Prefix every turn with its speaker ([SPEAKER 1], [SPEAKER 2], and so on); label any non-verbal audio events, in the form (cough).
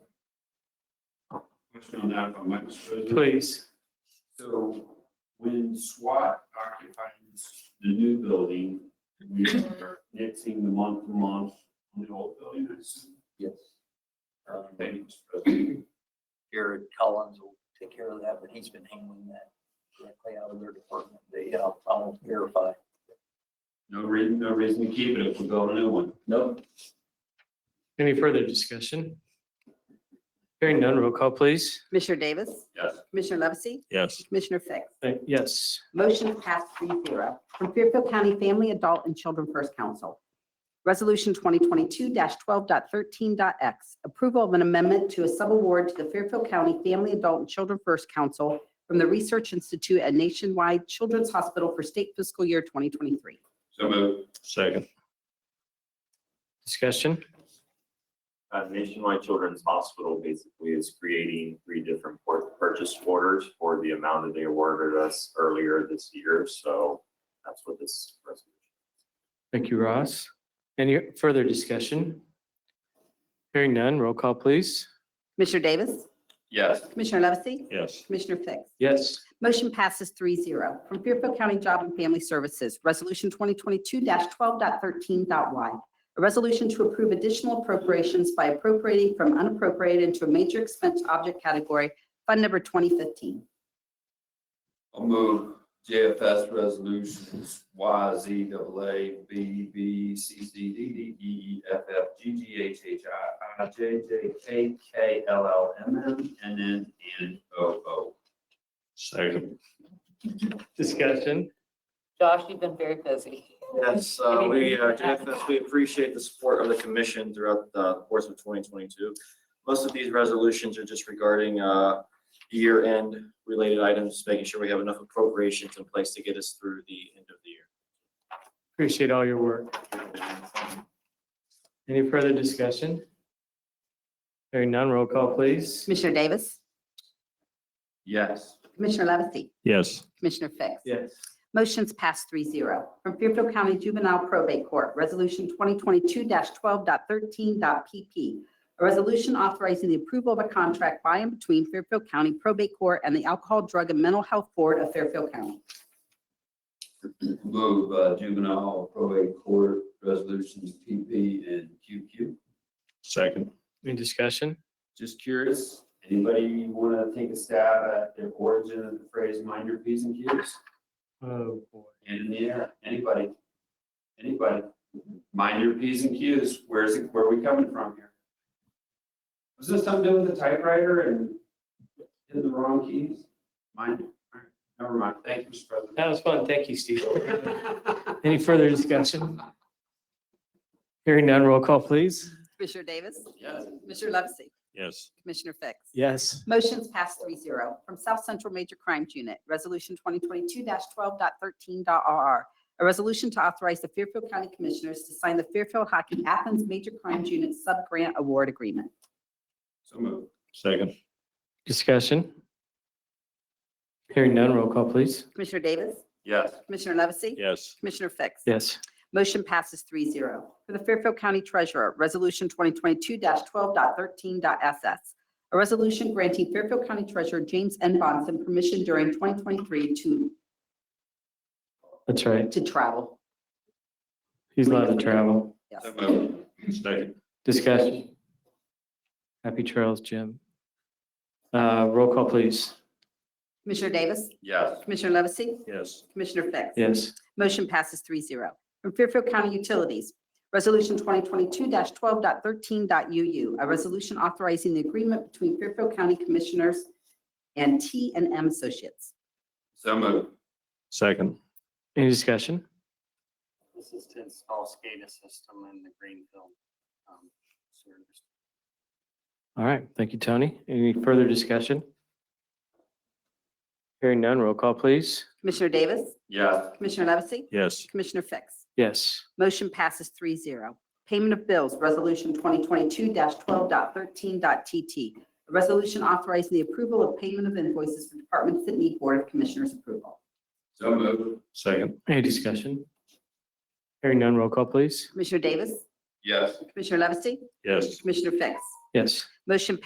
[SPEAKER 1] question on that, if I might, Mr. President.
[SPEAKER 2] please.
[SPEAKER 1] So when SWAT occupies the new building, we are nixing the month to month on the old building, I assume.
[SPEAKER 3] Yes.
[SPEAKER 1] Uh, Thank you, Mr. President.
[SPEAKER 3] Um, Jared Collins will take care of that, but he's been handling that directly out of their department. They, I'll, I'll verify.
[SPEAKER 1] No reason, no reason to keep it if we build a new one.
[SPEAKER 3] No.
[SPEAKER 2] Any further discussion? Hearing none, roll call, please.
[SPEAKER 4] Commissioner Davis?
[SPEAKER 1] Yes.
[SPEAKER 4] Commissioner Levesey?
[SPEAKER 5] yes,
[SPEAKER 4] Commissioner Fix?
[SPEAKER 2] Uh, Yes,
[SPEAKER 4] Motion passed three zero. From Fairfield County Family, Adult, and Children First Council. Resolution 2022-12.13.x, approval of an amendment to a subaward to the Fairfield County Family, Adult, and Children First Council from the Research Institute at Nationwide Children's Hospital for State Fiscal Year 2023.
[SPEAKER 1] So moved.
[SPEAKER 5] second,
[SPEAKER 2] discussion.
[SPEAKER 6] Uh, Nationwide Children's Hospital basically is creating three different por- purchase orders for the amount that they awarded us earlier this year. So that's what this resolution
[SPEAKER 2] Thank you, Ross. Any further discussion? Hearing none, roll call, please.
[SPEAKER 4] Commissioner Davis?
[SPEAKER 1] Yes.
[SPEAKER 4] Commissioner Levesey?
[SPEAKER 5] yes,
[SPEAKER 4] Commissioner Fix?
[SPEAKER 2] Yes,
[SPEAKER 4] Motion passes 3-0 From Fairfield County Job and Family Services, Resolution 2022-12.13.y. A resolution to approve additional appropriations by appropriating from unappropriated into a major expense object category, Fund Number 2015.
[SPEAKER 7] I'll move JFS resolutions Y, Z, double A, B, B, C, C, D, D, E, F, F, G, G, H, H, I, I, J, J, K, K, L, L, M, M, N, N, and O, O.
[SPEAKER 5] second,
[SPEAKER 2] discussion.
[SPEAKER 8] Josh, you've been very busy.
[SPEAKER 6] Yes, uh, we, uh, JFS, we appreciate the support of the commission throughout the course of 2022. Most of these resolutions are just regarding uh, year-end related items, making sure we have enough appropriations in place to get us through the end of the year.
[SPEAKER 2] Appreciate all your work. Any further discussion? Hearing none, roll call, please.
[SPEAKER 4] Commissioner Davis?
[SPEAKER 7] Yes.
[SPEAKER 4] Commissioner Levesey?
[SPEAKER 5] yes,
[SPEAKER 4] Commissioner Fix?
[SPEAKER 2] Yes.
[SPEAKER 4] Motion's passed 3-0 From Fairfield County Juvenile Probate Court, Resolution 2022-12.13.PP. A resolution authorizing the approval of a contract by and between Fairfield County Probate Court and the Alcohol, Drug, and Mental Health Board of Fairfield County.
[SPEAKER 7] Move uh, juvenile probate court resolutions PP and QQ.
[SPEAKER 5] second,
[SPEAKER 2] Any discussion?
[SPEAKER 1] Just curious, anybody want to take a stab at the origin of the phrase mind your P's and Q's?
[SPEAKER 2] Oh, boy.
[SPEAKER 1] And in the air, anybody, anybody, mind your P's and Q's, where's, it- where are we coming from here? Was this something to do with the typewriter and in the wrong keys? Mind, it. All right, never mind, thank you, Mr. President.
[SPEAKER 2] That was fun. Thank you, (laughs) Steve. Any further discussion? Hearing none, roll call, please.
[SPEAKER 4] Commissioner Davis?
[SPEAKER 1] Yes.
[SPEAKER 4] Commissioner Levesey?
[SPEAKER 5] yes,
[SPEAKER 4] Commissioner Fix?
[SPEAKER 2] Yes,
[SPEAKER 4] Motion's passed 3-0 From South Central Major Crimes Unit, Resolution 2022-12.13.RR. A resolution to authorize the Fairfield County Commissioners to sign the Fairfield Hockey Athens Major Crimes Unit Sub-Grant Award Agreement.
[SPEAKER 1] So moved.
[SPEAKER 5] second,
[SPEAKER 2] discussion. Hearing none, roll call, please.
[SPEAKER 4] Commissioner Davis?
[SPEAKER 1] Yes.
[SPEAKER 4] Commissioner Levesey?
[SPEAKER 5] yes,
[SPEAKER 4] Commissioner Fix?
[SPEAKER 2] Yes,
[SPEAKER 4] Motion passes 3-0 For the Fairfield County Treasurer, Resolution 2022-12.13.SS. A resolution granting Fairfield County Treasurer James N. Bonson permission during 2023 to,
[SPEAKER 2] that's right.
[SPEAKER 4] to travel.
[SPEAKER 2] He's allowed to travel.
[SPEAKER 4] Yes.
[SPEAKER 7] So moved.
[SPEAKER 5] second,
[SPEAKER 2] Discussion. Happy trails, Jim. Uh, roll call, please.
[SPEAKER 4] Commissioner Davis?
[SPEAKER 7] Yes.
[SPEAKER 4] Commissioner Levesey?
[SPEAKER 5] yes,
[SPEAKER 4] Commissioner Fix?
[SPEAKER 2] Yes,
[SPEAKER 4] Motion passes 3-0 From Fairfield County Utilities, Resolution 2022-12.13.u.u. A resolution authorizing the agreement between Fairfield County Commissioners and T and M Associates.
[SPEAKER 7] So moved.
[SPEAKER 5] second,
[SPEAKER 2] any discussion?
[SPEAKER 3] This is to install SCADA system in the Greenfield. um, service.
[SPEAKER 2] All right, thank you, Tony. Any further discussion? Hearing none, roll call, please.
[SPEAKER 4] Commissioner Davis?
[SPEAKER 7] Yes.
[SPEAKER 4] Commissioner Levesey?
[SPEAKER 5] yes,
[SPEAKER 4] Commissioner Fix?
[SPEAKER 2] Yes,
[SPEAKER 4] Motion passes 3-0. Payment of bills, Resolution 2022-12.13.t.t. A resolution authorizing the approval of payment of invoices for departments that need Board of Commissioners approval.
[SPEAKER 7] So moved.
[SPEAKER 5] second,
[SPEAKER 2] any discussion? Hearing none, roll call, please.
[SPEAKER 4] Commissioner Davis?
[SPEAKER 7] Yes.
[SPEAKER 4] Commissioner Levesey?
[SPEAKER 5] yes.
[SPEAKER 4] Commissioner Fix?
[SPEAKER 2] Yes.
[SPEAKER 4] Motion